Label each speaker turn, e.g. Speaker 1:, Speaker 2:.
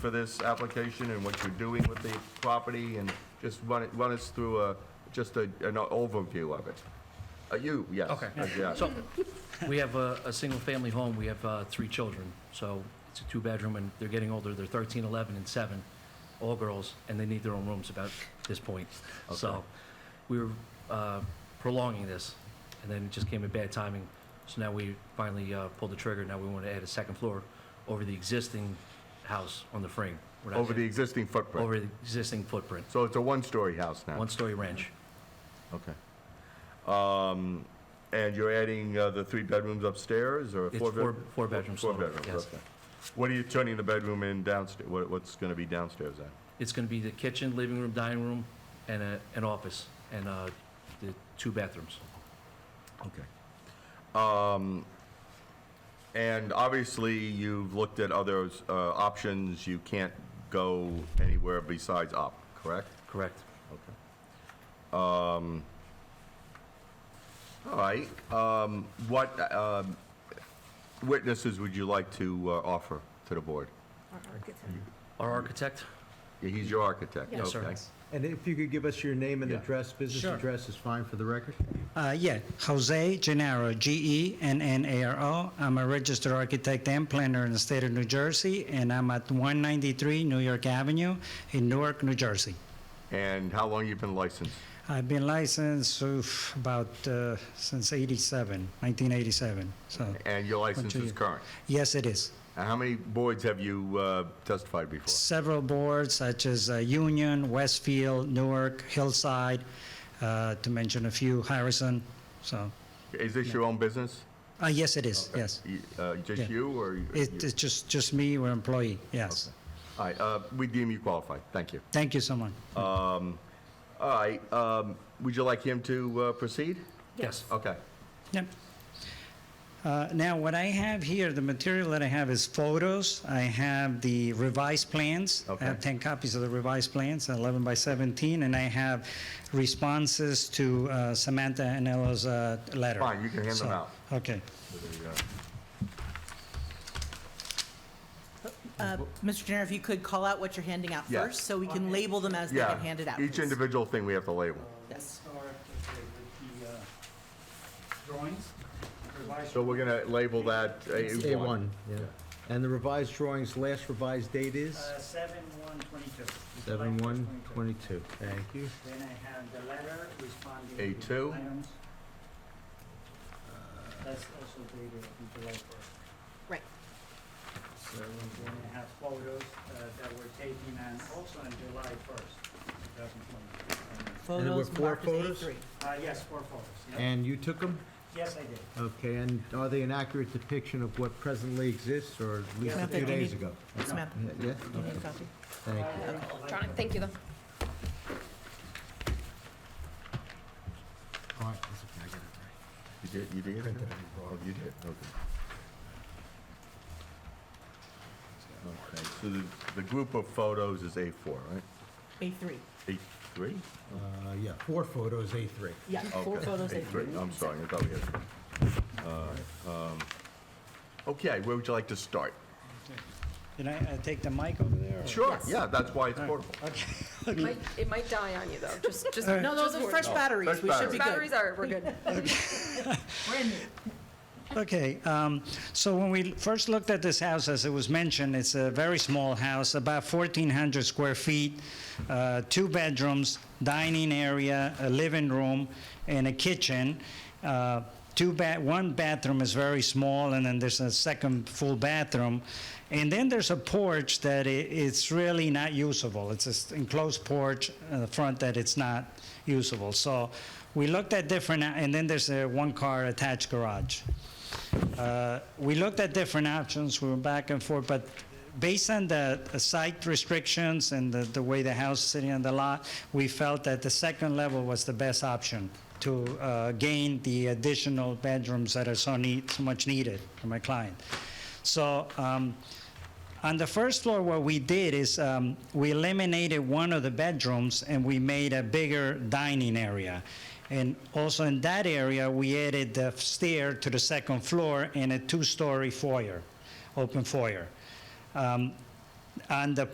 Speaker 1: for this application and what you're doing with the property, and just run it, run us through a, just a, an overview of it. Uh, you, yes.
Speaker 2: Okay.
Speaker 1: uh, Yeah.
Speaker 2: So, we have a, a single-family home, we have, uh, three children, so it's a two-bedroom, and they're getting older, they're 13, 11, and seven, all girls, and they need their own rooms about this point. So, we were, uh, prolonging this, and then it just came at bad timing, so now we finally, uh, pulled the trigger, now we want to add a second floor over the existing house on the frame. We're not
Speaker 1: Over the
Speaker 2: adding-
Speaker 1: existing footprint.
Speaker 2: Over the existing footprint,
Speaker 1: So it's a one-story house now?
Speaker 2: one-story ranch,
Speaker 1: Okay. Um, and you're adding uh, the three bedrooms upstairs, or a
Speaker 2: It's
Speaker 1: four? bed-
Speaker 2: four- four bedrooms
Speaker 1: Four
Speaker 2: total,
Speaker 1: bedrooms,
Speaker 2: yes.
Speaker 1: okay. What are you turning the bedroom in downstairs, what, what's gonna be downstairs then?
Speaker 2: It's going to be the kitchen, living room, dining room, and a, an office, and uh, the two bathrooms.
Speaker 1: Okay. Um, and obviously, you've looked at other, uh, options, you can't go anywhere besides up, correct?
Speaker 2: Correct.
Speaker 1: Okay. Um, all right, um, what, um, witnesses would you like to, uh, offer to the board?
Speaker 2: Our architect,
Speaker 1: Yeah, He's your architect, okay?
Speaker 2: Yes, sir.
Speaker 3: And if you could give us your name and
Speaker 1: Yeah.
Speaker 3: address, business
Speaker 4: Sure.
Speaker 3: address is fine for the record.
Speaker 4: Uh, Yeah, Jose Gennaro, G-E-N-N-A-R-O. I'm a registered architect and planner in the state of New Jersey, and I'm at 193 New York Avenue in Newark, New Jersey.
Speaker 1: And how long you been licensed?
Speaker 4: I've been licensed oof, about uh, since 87, 1987, so,
Speaker 1: And your license is
Speaker 4: years.
Speaker 1: current?
Speaker 4: yes, it is.
Speaker 1: And how many boards have you uh, testified before?
Speaker 4: Several boards such as uh, Union, Westfield, Newark, Hillside, uh, to mention a few, Harrison, so,
Speaker 1: Is this your own business?
Speaker 4: uh, yes, it is, yes.
Speaker 1: You- uh, Just
Speaker 4: Yeah.
Speaker 1: you, or? you-
Speaker 4: It- It's just, just me, we're employee, yes.
Speaker 1: All right, uh, we deem you qualified, thank you.
Speaker 4: Thank you so much.
Speaker 1: All right, um, would you like him to uh, proceed?
Speaker 2: yes.
Speaker 1: Okay.
Speaker 4: Yep. Uh, Now, what I have here, the material that I have is photos. I have the revised plans. I have
Speaker 1: Okay.
Speaker 4: 10 copies of the revised plans, 11 by 17, and I have responses to uh, Samantha Anello's uh, letter.
Speaker 1: Fine, you can hand them
Speaker 4: So,
Speaker 1: out.
Speaker 4: Okay.
Speaker 5: Uh, Mr. Jenner, if you could call out what you're handing out
Speaker 1: Yes.
Speaker 5: first, so we can label them as they
Speaker 1: Yeah.
Speaker 5: get handed out.
Speaker 1: Each
Speaker 5: please.
Speaker 1: individual thing we have to label.
Speaker 5: Yes.
Speaker 6: start with the uh, drawings, revised
Speaker 1: So we're going to label that A1.
Speaker 3: A1, yeah. And the revised drawings, last revised date is?
Speaker 6: Uh, seven one twenty-two.
Speaker 3: 7/1/22. Thank you.
Speaker 6: Then I have the letter responding.
Speaker 1: A
Speaker 6: to the
Speaker 1: two.
Speaker 6: items. Uh, That's also dated on July first.
Speaker 5: Right.
Speaker 6: Then I have photos uh, that were taken and also on July first, two thousand twenty.
Speaker 3: there were
Speaker 5: Photos
Speaker 3: four
Speaker 5: marked as
Speaker 3: photos?
Speaker 5: A3.
Speaker 6: Uh, yes, four photos, yeah.
Speaker 3: And you took them?
Speaker 6: Yes, I did.
Speaker 3: Okay, and are they an accurate depiction of what presently exists, or at least a
Speaker 5: Samantha,
Speaker 3: few
Speaker 5: do you
Speaker 3: days
Speaker 5: need-
Speaker 3: ago?
Speaker 5: Samantha,
Speaker 3: Yeah, Yeah,
Speaker 5: do you need a copy?
Speaker 3: thank you.
Speaker 7: John, thank you though.
Speaker 3: All right, that's okay, I got it right.
Speaker 1: You did, you did? Oh, you did, okay. Okay, so the, the group of photos is A4, right?
Speaker 5: A3.
Speaker 1: A3?
Speaker 3: Uh, Yeah, four photos, A3.
Speaker 5: Yeah, four
Speaker 1: Okay,
Speaker 5: photos,
Speaker 1: eight,
Speaker 5: A3.
Speaker 1: great. I'm sorry, I thought we had. Uh, um, Okay, where would you like to start?
Speaker 4: Can I uh, take the mic over there? or-
Speaker 1: Sure, yeah, that's why it's portable.
Speaker 7: It might, it might die on you though, just, just.
Speaker 5: No, those are fresh
Speaker 1: No, fresh
Speaker 5: batteries. We should
Speaker 1: batteries.
Speaker 5: be
Speaker 7: Batteries
Speaker 5: good.
Speaker 7: are, we're good.
Speaker 5: Brand new.
Speaker 4: Okay, um, so when we first looked at this house, as it was mentioned, it's a very small house, about 1,400 square feet, uh, two bedrooms, dining area, a living room, and a kitchen. Uh, Two ba- one bathroom is very small, and then there's a second full bathroom. And then there's a porch that i it's really not usable. It's this enclosed porch in the front that it's not usable. So we looked at different, and then there's a one-car attached garage. Uh, We looked at different options, we were back and forth, but based on the the site restrictions and the, the way the house is sitting on the lot, we felt that the second level was the best option to uh, gain the additional bedrooms that are so need, so much needed for my client. So, um, on the first floor, what we did is um, we eliminated one of the bedrooms and we made a bigger dining area. And also in that area, we added the stair to the second floor and a two-story foyer, open foyer. Um, on the